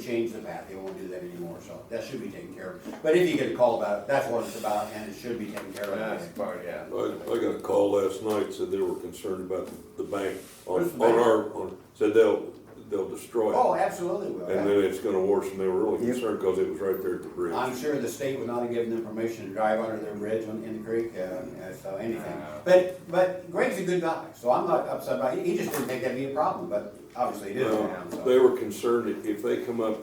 changed the path, they won't do that anymore, so that should be taken care of. But if you get a call about it, that's what it's about, and it should be taken care That's of. part, yeah. I, I got a call last night, said they were concerned about the bank on, Where's the on bank? our, on, said they'll, they'll destroy Oh, it. absolutely will. And then it's gonna worse, and they were really Yep. concerned because it was right there at the bridge. I'm sure the state would not have given them permission to drive under their bridge on, in the creek, uh, uh, so anything. Uh, But, but Greg's a good guy, so I'm not upset about, he he just didn't think that'd be a problem, but obviously it is now, Uh, They so. were concerned if- if they come up,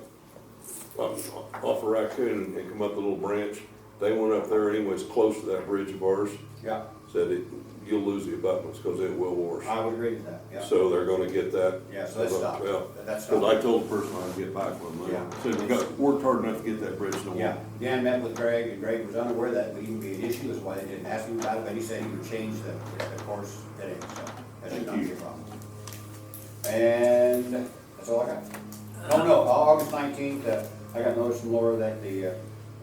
up off of Raccoon and come up the little branch, they went up there anyways, close to that bridge of ours, Yeah, said it, you'll lose the abutments because it will worse. I would agree with that, yeah. So they're gonna get that. Yeah, so that's stopped, Yeah. that's Cause I stopped. told the person I'd get back with them. Yeah. I Said, we got, worked hard enough to get that bridge to work. Yeah, Dan met with Greg, and Greg was unaware that would even be an issue, is why they didn't ask him about it, but he said he would change the, the course today, so that should not be a problem. And that's all I got. Oh, no, Au- August nineteenth, uh, I got notice from Laura that the, uh,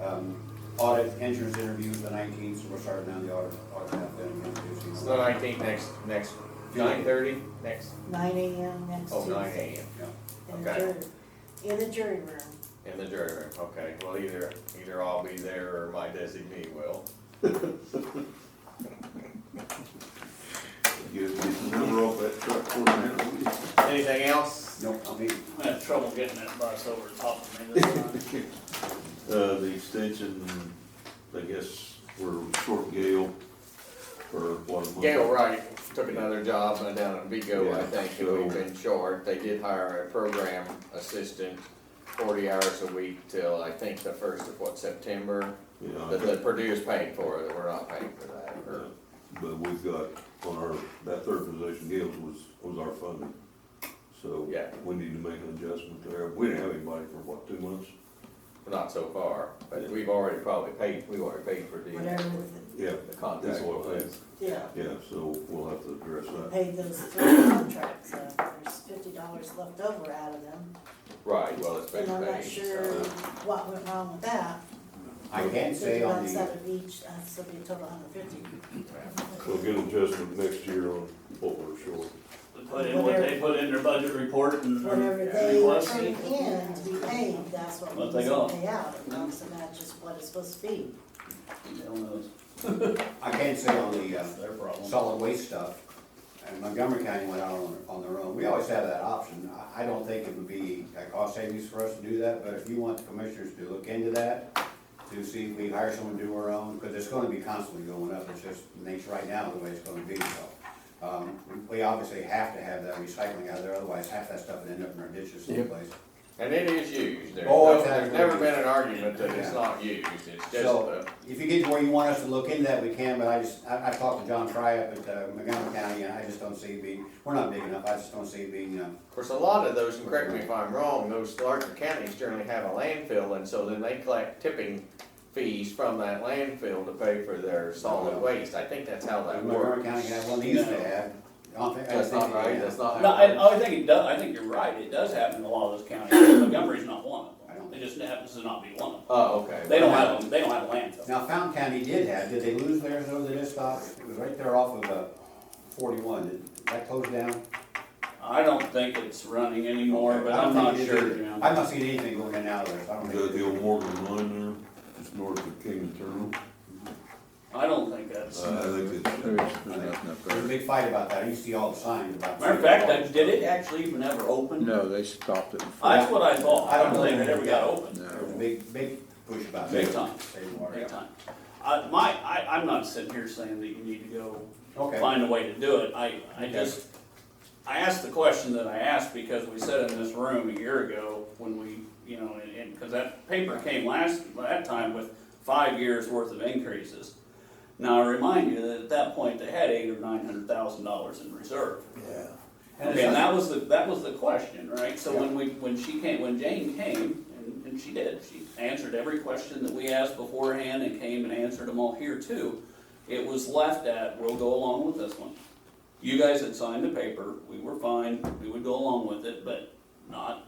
um, audit entrance interview is the nineteenth, so we're starting down the audit, audit path then again. Tuesday. It's the nineteenth, next, next, nine thirty, next, Nine AM next oh, nine Tuesday. AM, Yeah. in the okay. jury- In the jury room. in the jury room, okay, well, either, either I'll be there or my designee will. Get, get the number off that truck for me. Anything else? Nope, I'll be, I had trouble getting that bus over the top of me this time. Uh, the extension, I guess, we're short Gale for one month. Gail Wright took another job uh, down in Vigo, I Yeah, think, and so- we've been short. They did hire a program assistant, forty hours a week till, I think, the first of what, September? Yeah, That, I that think- Purdue's paying for it, we're not paying for that, or, but we've got on our, that third position, Gale's was, was our funding. So Yeah. we need to make an adjustment there. We didn't have anybody for what, two months? not so far. But we've already probably paid, we've already paid for the, Whatever Yeah, the contact. That's what it is. Yeah. yeah, so we'll have to address that. Paid those three contracts, so there's fifty dollars left over out of them. Right, well, it's been And I'm not paid, sure so. what went wrong with that. I can say on Fifty the, bucks out of each, that's gonna be a total of hundred Mm-hmm. fifty. We'll get an adjustment next year on what we're short. They Put in what they put in their budget report and Whatever they requested. turn in to be paid, that's what we What they need to got. pay out. Mm-hmm. So that's just what it's supposed to be. Hell knows. I can say on the, uh, That's their problem. solid waste stuff, and Montgomery County went out on, on their own, we always have that option. I, I don't think it would be a cost savings for us to do that, but if you want the commissioners to look into that, to see if we hire someone to do our own, because it's gonna be constantly going up, it's just the nature right now, the way it's gonna be, so. Um, we obviously have to have that recycling out there, otherwise half that stuff would end up in our ditches someplace. And it is used. There's, Oh, no- it's there's actually never been used. an argument that Yeah. it's not used, it's just So, the, if you get to where you want us to look into that, we can, but I just, I, I talked to John Fry up at uh, Montgomery County, and I just don't see it being, we're not big enough, I just don't see it being, uh, Of course, a lot of those, and correct me if I'm wrong, those larger counties generally have a landfill, and so then they collect tipping fees from that landfill to pay for their solid waste. I think that's how that Montgomery works. County had one they used to have. I don't think- I That's not think- right, that's not No, I, how it I think it does, I think you're right, it does happen in a lot of those counties, Montgomery's not one I of don't- them, it just happens to not be one of them. Oh, okay. They don't have, them. they don't have a landfill. Now, Fountain County did have, did they lose theirs over the stop? It was right there off of, uh, forty-one, did that close down? I don't think it's running anymore, but I don't I'm think not it did sure, either. you know. I've not seen anything going in and out of there, so I don't You think. got it the is. old Morgan line there, just north of King and Terminal. I don't think that's, Uh, I think it's, There was a big fight about that, I used to see all the signs about. matter of fact, I- did it actually even ever open? No, they stopped it. That's what I thought, I I don't don't think know. it ever got opened. No. There was a big, big push about that. Big time. Save water, Big yeah. time. I, my, I, I'm not sitting here saying that you need to go Okay. find a way to do it, I, I Okay. just, I asked the question that I asked because we said in this room a year ago when we, you know, and, and, cause that paper came last, that time with five years worth of increases. Now, I remind you that at that point, they had eight or nine hundred thousand dollars in reserve. And Okay, and it's- that was the, that was the question, right? So when we, when she came, when Jane came, and, and she did, she answered every question that we asked beforehand and came and answered them all here too. It was left at, we'll go along with this one. You guys had signed the paper, we were fine, we would go along with it, but not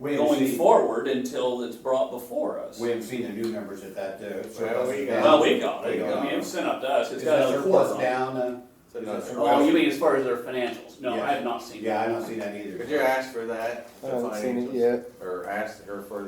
We haven't going seen, forward until it's brought before us. we haven't seen the new numbers at that, uh. Well, we got- Well, we got We it, I got mean, it. it was sent up to us, uh, Is it's got that a report surplus on it. down, uh, So to another. Well, Oh, you mean as far as their financials? No, I have not seen that. Yeah, I don't see that either. Could you ask for that? I the haven't seen it financials? yet. Or ask her for